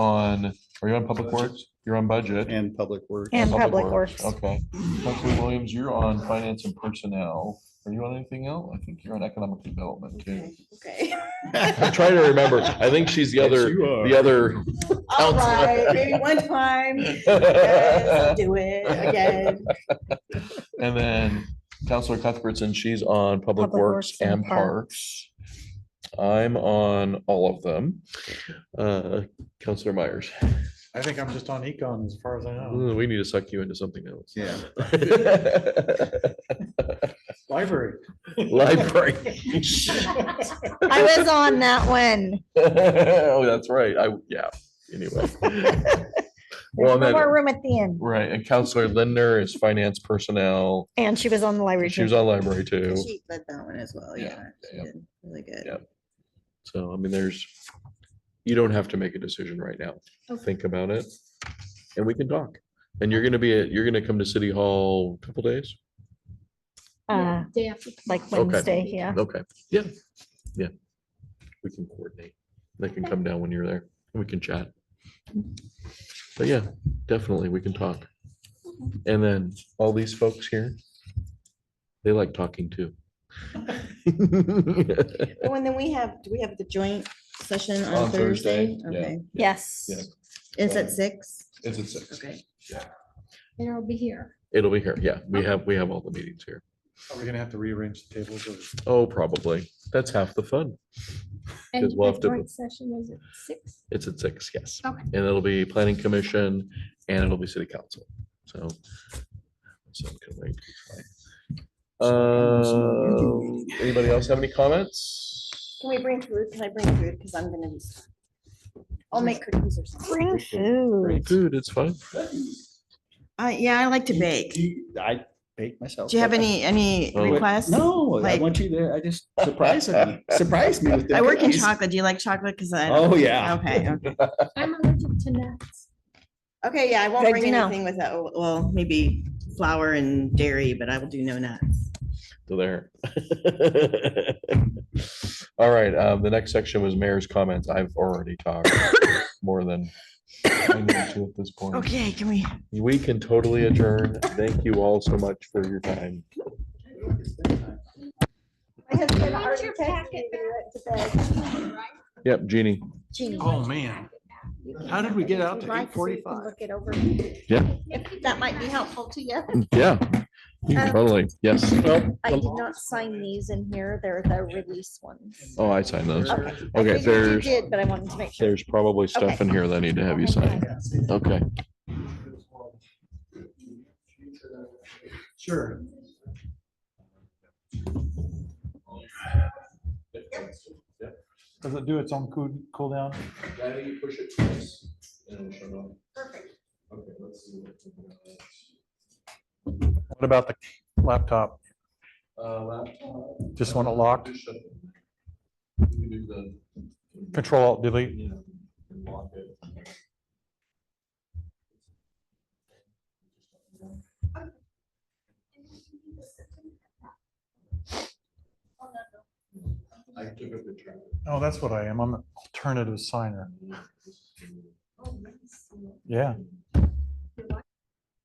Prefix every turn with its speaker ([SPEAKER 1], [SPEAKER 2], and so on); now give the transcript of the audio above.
[SPEAKER 1] on, are you on Public Works? You're on Budget.
[SPEAKER 2] and public work.
[SPEAKER 3] And Public Works.
[SPEAKER 1] Okay. Councilor Williams, you're on Finance and Personnel. Are you on anything else? I think you're on Economic Development too.
[SPEAKER 4] Okay.
[SPEAKER 5] I'm trying to remember. I think she's the other, the other.
[SPEAKER 4] All
[SPEAKER 5] Counselor.
[SPEAKER 4] right, maybe one time. Yes, I'll Do it again.
[SPEAKER 1] And then Counselor Cuthbertson, she's on Public
[SPEAKER 3] Public
[SPEAKER 1] Works
[SPEAKER 3] Works and
[SPEAKER 1] and Parks. I'm on all of them. Uh, Counselor Myers,
[SPEAKER 6] I think I'm just on econ as far as I
[SPEAKER 2] Oh.
[SPEAKER 6] know.
[SPEAKER 5] mm, we need to suck you into something else.
[SPEAKER 2] Yeah.
[SPEAKER 6] Library.
[SPEAKER 5] Library.
[SPEAKER 3] I was on that one.
[SPEAKER 5] Oh, that's right. I, yeah, anyway. Well, and then,
[SPEAKER 3] One more room at the end.
[SPEAKER 5] right, and Counselor Lindner is Finance Personnel.
[SPEAKER 3] And she was on the library.
[SPEAKER 5] She was
[SPEAKER 3] too.
[SPEAKER 5] on Library too.
[SPEAKER 4] She led that one as well,
[SPEAKER 1] Yeah,
[SPEAKER 4] yeah. she
[SPEAKER 1] yeah.
[SPEAKER 4] did Really good.
[SPEAKER 5] Yeah. So, I mean, there's, you don't have to make a decision right now.
[SPEAKER 4] Okay.
[SPEAKER 5] Think about it and we can talk. And you're gonna be, at you're gonna come to City Hall a couple days?
[SPEAKER 3] Uh,
[SPEAKER 7] Day after.
[SPEAKER 3] like
[SPEAKER 5] Okay.
[SPEAKER 3] Wednesday, yeah.
[SPEAKER 5] Okay, yeah, yeah. We can coordinate. They can come down when you're there. and We can chat. But yeah, definitely, we can talk. And then all these folks here, they like talking too.
[SPEAKER 4] Oh, and then we have, do we have the joint session
[SPEAKER 1] On
[SPEAKER 4] on Thursday?
[SPEAKER 1] Thursday, yeah.
[SPEAKER 4] Okay.
[SPEAKER 3] Yes.
[SPEAKER 1] Yeah.
[SPEAKER 4] Is it six?
[SPEAKER 1] Is it six?
[SPEAKER 4] Okay.
[SPEAKER 7] And it'll be here.
[SPEAKER 5] It'll be here. Yeah, we have, we have all the meetings here.
[SPEAKER 6] Are we gonna have to rearrange the tables or?
[SPEAKER 5] Oh, probably. That's half the fun.
[SPEAKER 7] And
[SPEAKER 5] Because we'll
[SPEAKER 7] the
[SPEAKER 5] have to-
[SPEAKER 7] joint Session is at six.
[SPEAKER 5] It's at six, yes.
[SPEAKER 7] Okay.
[SPEAKER 5] And it'll be planning commission and it'll be city council. So. so it can wait. Um, Anybody else have any comments?
[SPEAKER 4] Can we bring food? Can I bring food? Because I'm gonna be. I'll make cookies or something.
[SPEAKER 3] Bring
[SPEAKER 5] Bring
[SPEAKER 3] food.
[SPEAKER 5] Food, it's fine.
[SPEAKER 4] Uh, yeah, I like to bake. Do
[SPEAKER 2] I bake myself.
[SPEAKER 4] you have
[SPEAKER 2] but I-
[SPEAKER 4] any, any
[SPEAKER 5] Oh.
[SPEAKER 4] requests?
[SPEAKER 2] No, I
[SPEAKER 4] Like-
[SPEAKER 2] want you to, I just surprise me, surprise me with. the
[SPEAKER 4] I work in
[SPEAKER 2] cookies.
[SPEAKER 4] chocolate. Do you like chocolate? Because I.
[SPEAKER 2] Oh, yeah.
[SPEAKER 4] Okay, okay.
[SPEAKER 7] I'm allergic to nuts.
[SPEAKER 4] Okay, yeah, I won't
[SPEAKER 3] Good
[SPEAKER 4] bring
[SPEAKER 3] to know.
[SPEAKER 4] anything with that. Well, maybe flour and dairy, but I will do no nuts.
[SPEAKER 5] So There. All right, um, the next section was mayor's comments. I've already talked more than I need to at this point.
[SPEAKER 4] Okay, can we?
[SPEAKER 5] We can totally adjourn. Thank you all so much for your time.
[SPEAKER 7] Put your packet back.
[SPEAKER 5] Yep, Jeannie.
[SPEAKER 6] Oh, man. How did we get out to
[SPEAKER 7] Right, so you can
[SPEAKER 6] 8:45?
[SPEAKER 7] Look it over.
[SPEAKER 5] Yeah.
[SPEAKER 7] That might be helpful to you.
[SPEAKER 5] Yeah,
[SPEAKER 7] Um,
[SPEAKER 5] totally. Yes.
[SPEAKER 7] I did not sign these in here. They're the release ones.
[SPEAKER 5] Oh, I signed those.
[SPEAKER 7] Okay.
[SPEAKER 5] Okay, there's,
[SPEAKER 7] did, but I wanted to make
[SPEAKER 5] there's probably stuff in here that I need to have you sign. Okay.
[SPEAKER 6] Sure. Does it do its own cool, cool down? What about the laptop? Just want it locked? Control alt delete? Oh, that's what I am. I'm an alternative signer. Yeah.